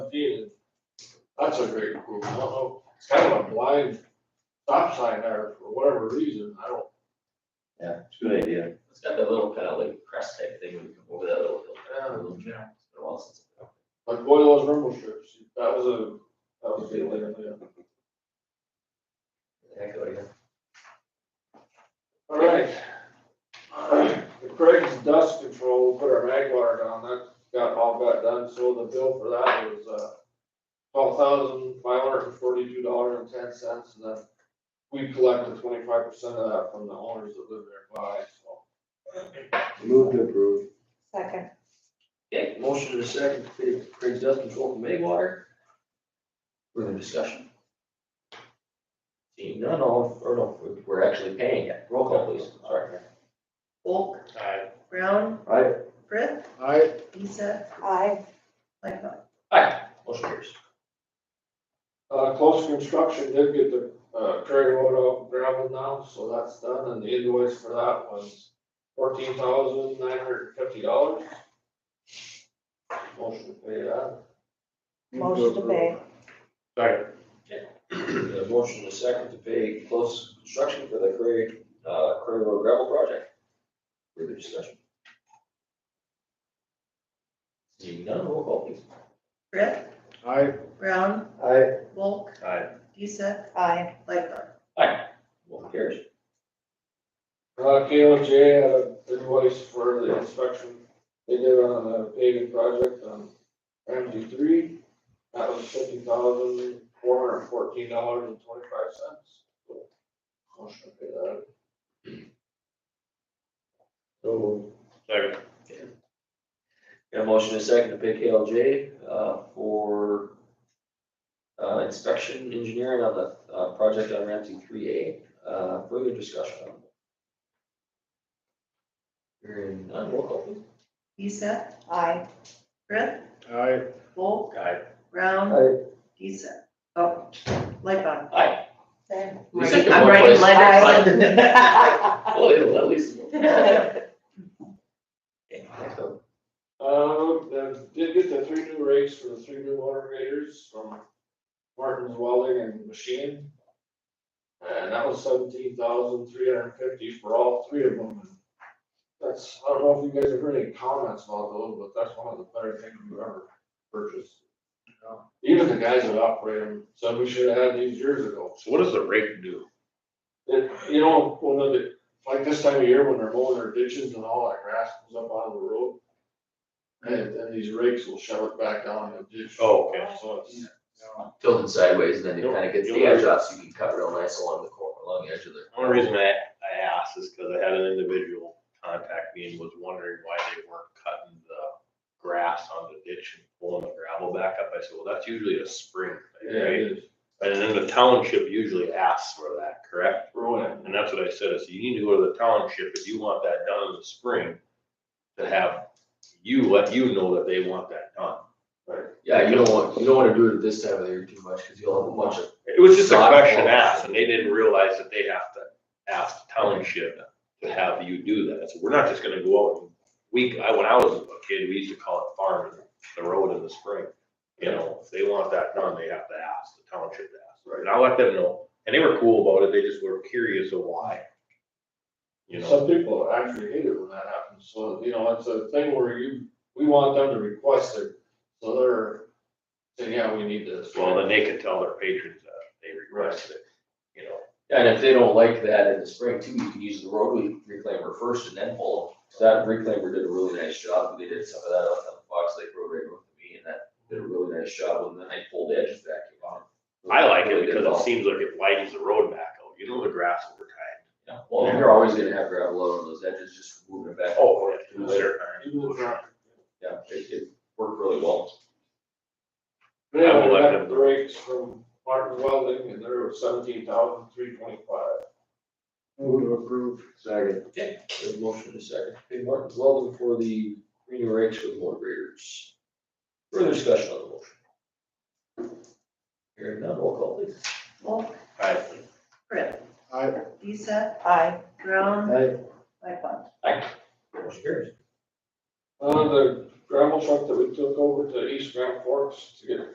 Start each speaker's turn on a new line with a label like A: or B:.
A: That's a great improvement. I don't know, it's kind of a blind stop sign there for whatever reason. I don't,
B: Yeah, it's a good idea.
C: It's got that little kind of like crest type thing when you come over that little hill.
A: Yeah.
C: Little jack. It's been a while since I've been
A: like boy, those rumble strips, that was a, that was a big one, yeah.
C: up there. Heck, oh, yeah.
A: All right. The Craig's dust control, we put our mag water down, that got all got done, so the bill for that was, uh, twelve thousand five hundred and forty-two dollars and ten cents, and then we collected twenty-five percent of that from the owners that live nearby, so.
B: Move to approve.
D: Second.
C: Okay, motion to second, Craig- Craig's dust control from Maywater. Further discussion. Seeing none, all, or no, we're- we're actually paying it. Roll call please, sorry.
E: Volk. Brown,
B: I,
E: Brett,
A: Alright,
E: Lisa,
D: Aye.
E: Lightfoot.
C: Aye, motion carries.
A: Uh, close construction did get the, uh, Curry Road out gravel now, so that's done, and the invoice for that was fourteen thousand nine hundred and fifty dollars. Motion to pay that.
D: Motion to pay.
C: The motion to second to pay close construction for the Craig, uh, Craig Road gravel project. Further discussion. Seeing none, roll call please.
E: Brett,
A: Aye.
E: Brown,
B: I,
E: Volk.
C: Aye.
E: Lisa,
D: Aye.
E: Lightfoot.
C: Motion carries.
A: Uh, KLJ had an invoice for the inspection they did on the paving project on Ramsey three. That was fifty thousand four hundred and fourteen dollars and twenty-five cents. Motion to pay that.
C: So. Second. Got a motion and a second to pick KLJ, uh, for, uh, inspection engineering on the, uh, project on Ramsey three A, uh, further discussion on. Hearing none, roll call please.
E: Lisa,
D: Aye.
E: Brett,
A: Aye.
E: Volk,
C: Aye.
E: Brown,
B: I,
E: Lisa, oh, Lightfoot.
C: Aye.
D: Same.
C: Lisa
E: Right,
C: can
E: I'm
C: vote
E: writing
C: twice.
E: letters.
C: Well, it'll at least. Okay, next up.
A: Um, then did get the three new rates for the three new water graders from Martin's Welding and Machine. And that was seventeen thousand three hundred and fifty for all three of them. That's, I don't know if you guys have heard any comments about those, but that's one of the better things we've ever purchased. Even the guys that operate them said we should have had these years ago.
F: So what does the rake do?
A: It, you know, one of the, like this time of year when they're mowing their ditches and all that grass comes up out of the road. And then these rakes will shove it back down in the ditch.
F: Oh, okay.
A: So it's,
C: Tilted sideways, and then it
F: You'll-
C: kind of gets the
F: you'll-
C: edge off, so you can cut real nice along the cor, along the edge of the.
F: The only reason I, I asked is because I had an individual contact me and was wondering why they weren't cutting the grass on the ditch and pulling the gravel back up. I said, well, that's usually a spring
A: yeah,
F: thing, right?
A: it is
F: And then the township usually asks for that, correct?
A: ruined.
F: And that's what I said, I said, you need to go to the township if you want that done in the spring, to have you, let you know that they want that done.
C: Yeah, you don't want, you don't wanna do it this time of the year too much, cause you'll have a bunch of,
F: It was just a
C: Not
F: question
C: close.
F: asked, and they didn't realize that they have to ask the township to have you do that. So we're not just gonna go out and we, I, when I was a kid, we used to call it farming the road in the spring. You know, if they want that done, they have to ask, the township to ask, right? And I let them know, and they were cool about it, they just were curious of why. You know,
A: Some people actually hate it when that happens. So, you know, it's a thing where you, we want them to request it. So they're saying, yeah, we need this.
F: well, then they can tell their patrons that they requested it, you know.
C: and if they don't like that in the spring too, you can use the roadway reclaimer first and then pull them. So that reclaimer did a really nice job, they did some of that up on Fox Lake Road right with me, and that did a really nice job, and then they pulled the edges back on.
F: I like
C: Really
F: it
C: did
F: because
C: well.
F: it seems like it widens the road back out, you know, the grass over time.
C: Yeah, Well, and you're always gonna have gravel out on those edges, just moving it back.
F: Oh,
C: and forth.
A: Even if not-
C: Yeah, it, it worked really well.
A: They
F: I will
A: have
F: let them
A: the rakes from Martin Welding and they're seventeen thousand three twenty-five.
B: move to approve. Second.
C: There's a motion in a second. Hey, Martin, welcome for the Green Rakes with more graders. Further discussion on the motion. Hearing none, roll call please.
E: Volk,
F: Aye.
E: Brett,
B: I,
E: Lisa,
D: Aye.
E: Brown,
B: I,
E: Lightfoot.
C: Motion carries.
A: Uh, the gravel truck that we took over to East Grand Forks to get